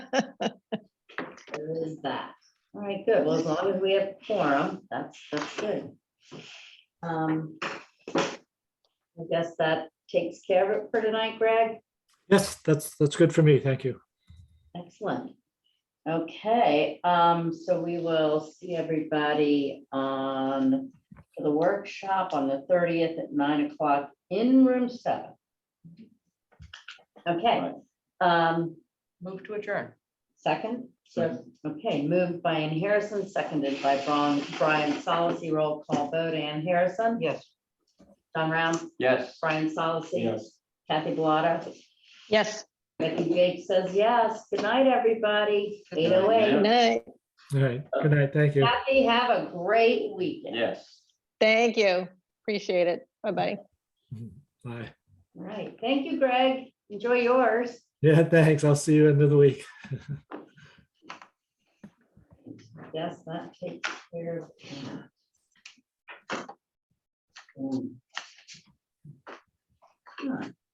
There is that. All right, good. Well, as long as we have quorum, that's, that's good. Um, I guess that takes care of it for tonight, Greg. Yes, that's, that's good for me. Thank you. Excellent. Okay, um, so we will see everybody on for the workshop on the thirtieth at nine o'clock in room seven. Okay, um, Move to adjourn. second, so, okay, moved by Ann Harrison, seconded by Brian, Brian Solacey, roll call vote, Ann Harrison, Yes. John Round, Yes. Brian Solacey. Yes. Kathy Bellata, Yes. Becky Jake says yes. Good night, everybody. Good Eight night. oh eight. Good night. All right. Good night. Thank you. Kathy, have a great weekend. Yes. Thank you. Appreciate it. Bye-bye. Bye. All right. Thank you, Greg. Enjoy yours. Yeah, thanks. I'll see you another week. Yes, that takes care of. that. Hmm. Huh.